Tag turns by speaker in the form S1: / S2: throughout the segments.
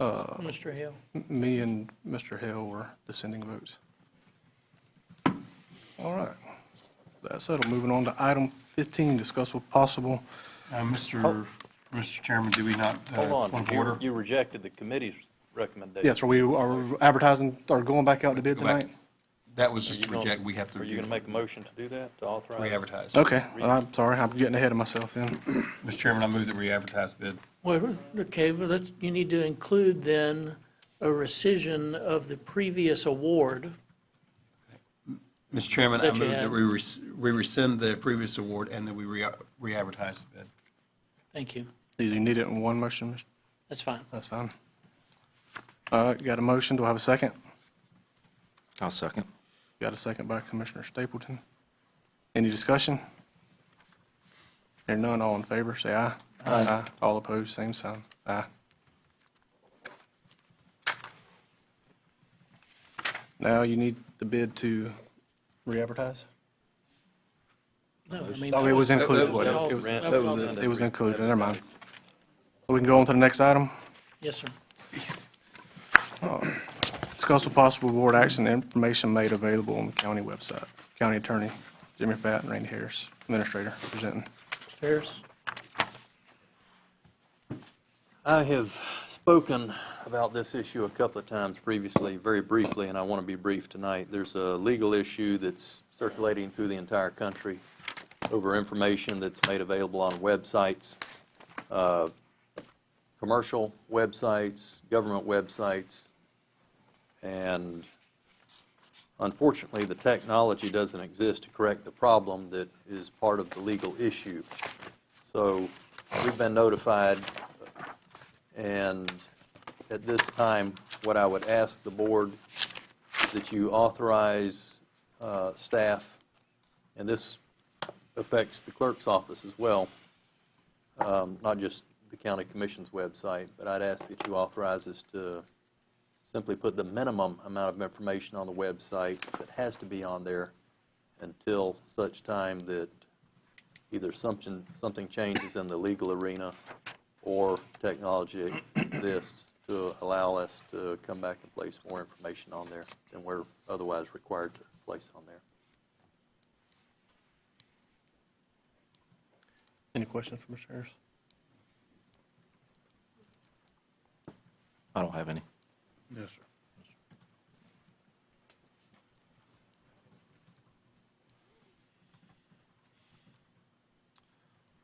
S1: Mr. Hill.
S2: Me and Mr. Hill were dissenting votes. All right. That's settled. Moving on to item 15, discuss with possible,
S3: Uh, Mr. Mr. Chairman, do we not? uh,
S4: Hold on,
S3: point of
S4: you-
S3: order?
S4: you rejected the committee's recommendation.
S2: yes, are we, are advertising, are going back out to bid
S5: Go back.
S2: tonight?
S5: That was
S4: Are
S5: just
S4: you
S5: to
S4: gonna-
S5: reject, we have to.
S4: Are you going to make a motion to do that, to authorize?
S5: Re-advertise.
S2: Okay, I'm sorry, I'm getting ahead of myself then.
S3: Mr. Chairman, I move that we advertise bid.
S1: Well, okay, well, let's, you need to include then a rescission of the previous award.
S3: Mr. Chairman, I
S1: That you
S3: move
S1: had.
S3: that we res- we rescind the previous award and that we re- re-advertise the bid.
S1: Thank you.
S2: Do you need it in one motion? Mr.?
S1: That's fine.
S2: That's fine. All right, got a motion. Do I have a second?
S6: I'll second.
S2: Got a second by Commissioner Stapleton. Any discussion? Hearing none, all in favor, say aye. Aye. All opposed, same sign. Aye. Now you need the bid to re-advertise?
S1: No, I mean,
S2: Oh, it was
S5: that
S2: included.
S5: was-
S1: that was-
S2: It was-
S4: That was in the-
S2: It was included, never mind. We can go on to the next item.
S1: Yes, sir.
S2: Discuss with possible board action and information made available on the county website. County Attorney Jimmy Fatt and Randy Harris, Administrator, presenting.
S1: Mr. Harris?
S4: I have spoken about this issue a couple of times previously, very briefly, and I want to be brief tonight. There's a legal issue that's circulating through the entire country over information that's made available on websites, uh, commercial websites, government websites, and unfortunately, the technology doesn't exist to correct the problem that is part of the legal issue. So we've been notified and at this time, what I would ask the board is that you authorize uh, staff, and this affects the clerk's office as well, um, not just the county commission's website, but I'd ask that you authorize us to simply put the minimum amount of information on the website that has to be on there until such time that either something, something changes in the legal arena or technology exists to allow us to come back and place more information on there than we're otherwise required to place on there.
S2: Any questions for Mr. Harris?
S6: I don't have any.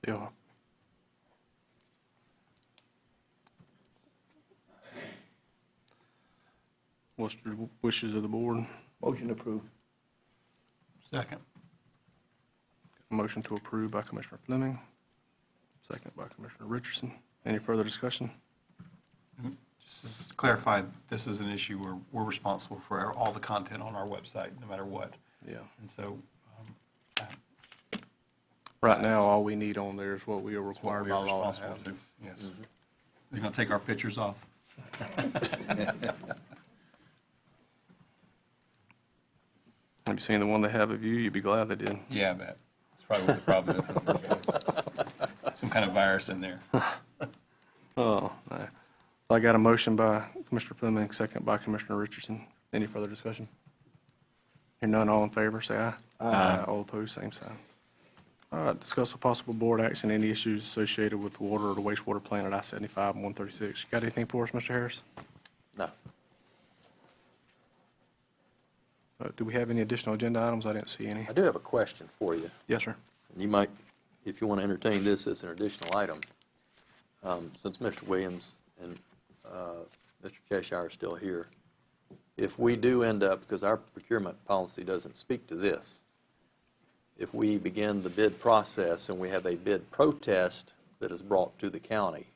S2: Yeah. What's the wishes of the board?
S7: Motion approved.
S3: Second.
S2: Motion to approve by Commissioner Fleming, second by Commissioner Richardson. Any further discussion?
S3: Just to clarify, this is an issue where we're responsible for our- all the content on our website, no matter what.
S2: Yeah.
S3: And so um,
S2: Right now, all we need on there is what we are
S3: we're
S2: required by law to
S3: responsible
S2: have.
S3: to, yes.
S4: Mm-hmm.
S3: They're going to take our pictures off.
S2: Have you seen the one they have of you? You'd be glad they did.
S3: Yeah, that, that's probably what the problem is. Some kind of virus in there.
S2: Oh, no. I got a motion by Commissioner Fleming, second by Commissioner Richardson. Any further discussion? Hear none, all in favor, say aye. Aye. All opposed, same sign. All right, discuss with possible board action, any issues associated with the water or the wastewater plant at I-75 and 136. Got anything for us, Mr. Harris?
S4: No.
S2: Uh, Do we have any additional agenda items? I didn't see any.
S4: I do have a question for you.
S2: Yes, sir.
S4: and you might, if you want to entertain this as an additional item, um, since Mr. Williams and uh, Mr. Cheshire are still here, if we do end up, because our procurement policy doesn't speak to this, if we begin the bid process and we have a bid protest that is brought to the county,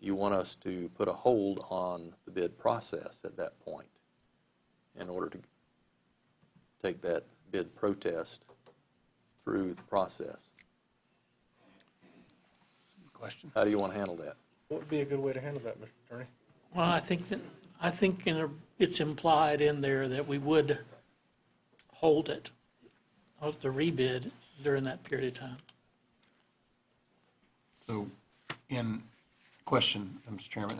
S4: you want us to put a hold on the bid process at that point in order to take that bid protest through the process.
S3: Question?
S4: How do you want to handle that?
S7: What would be a good way to handle that, Mr. Attorney?
S1: Well, I think that, I think in a- it's implied in there that we would hold it, hold the rebid during that period of time.
S3: So, in question, Mr. Chairman,